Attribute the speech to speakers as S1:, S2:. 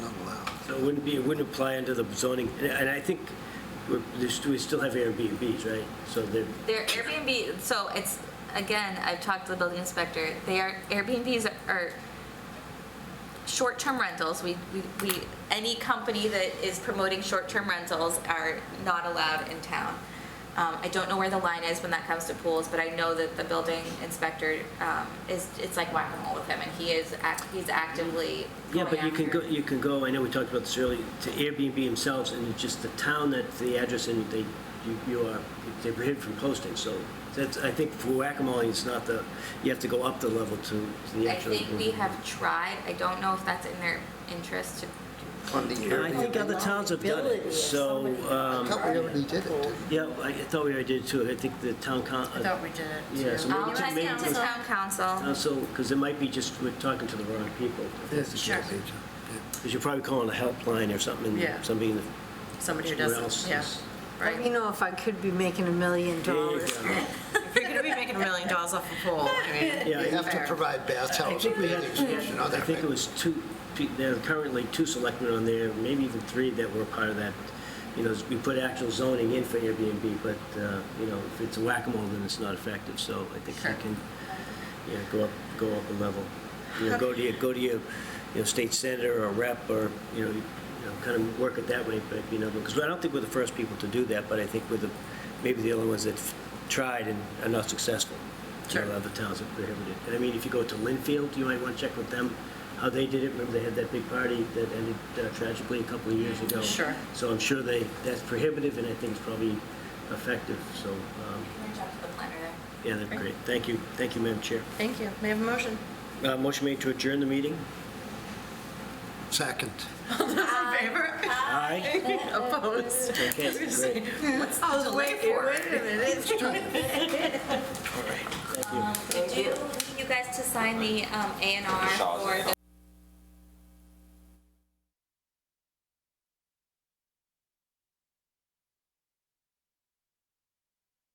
S1: So it wouldn't be, it wouldn't apply under the zoning, and- and I think we're- there's- we still have Airbnbs, right? So they're,
S2: They're Airbnb, so it's, again, I've talked to the building inspector, they are, Airbnbs are short-term rentals, we, we, we, any company that is promoting short-term rentals are not allowed in town. Um, I don't know where the line is when that comes to pools, but I know that the building inspector, um, is, it's like whack-a-mole with him, and he is, ac- he's actively
S1: yeah,
S2: going
S1: but you can
S2: after-
S1: go, you can go, I know we talked about this earlier, to Airbnb themselves, and it's just the town that, the address, and they, you- you are, they're prohibited from posting, so that's, I think for whack-a-mole, it's not the, you have to go up the level to to the
S2: I
S1: actual.
S2: think we have tried, I don't know if that's in their interest to
S3: on the
S1: And I
S3: Airbnb.
S1: think other towns have done
S4: Ability
S1: it,
S4: of
S1: so,
S4: somebody.
S3: I
S1: um,
S3: thought we already did it, didn't
S1: yeah, I thought we already did too, I think the town coun,
S4: I thought we did it.
S1: Yeah, so
S4: too. Um,
S1: maybe
S2: I'll
S1: just
S2: check
S1: make
S2: into
S1: it-
S2: town council.
S1: also, because uh, it might be just, we're talking to the wrong people.
S3: we? Yes,
S4: Sure.
S3: yes, yes,
S1: Because you're probably calling a helpline or something,
S4: Yeah.
S1: and somebody in the
S4: Somebody who
S1: somewhere else
S4: doesn't, yeah,
S1: is-
S4: right.
S5: You know, if I could be making a million
S1: There you
S5: dollars.
S1: go.
S4: If you're gonna be making a million dollars off a pool, I mean,
S3: yeah. We
S1: Yeah,
S3: have to
S4: Fair.
S3: provide
S1: I
S3: bathhouse,
S1: think we had,
S3: bathing station, all
S1: I
S3: that,
S1: think it
S3: right?
S1: was two, pe- there are currently two selectmen on there, maybe even three that were part of that. You know, we put actual zoning in for Airbnb, but, uh, you know, if it's a whack-a-mole, then it's not effective, so I think
S4: Sure.
S1: we can, yeah, go up, go up a level. You know, go to your, go to your, you know, state senator or rep, or, you know, you know, kind of work it that way, but, you know, because I don't think we're the first people to do that, but I think we're the, maybe the only ones that tried and are not successful. You know,
S4: Sure.
S1: other towns have prohibited. And I mean, if you go to Linfield, you might want to check with them how they did it. Remember, they had that big party that ended uh, tragically a couple of years ago.
S4: Sure.
S1: So I'm sure they, that's prohibitive, and I think it's probably effective, so, um, yeah, that's great. Thank you, thank you, Madam Chair.
S4: thank you, may I have a motion?
S1: Uh, Motion made to adjourn the meeting?
S3: Second.
S4: In favor?
S1: Aye.
S4: Opposed?
S1: Okay, great,
S4: I was waiting for it.
S1: thank you.
S2: Do you need you guys to sign the um, A and R
S6: Shaw's
S2: for the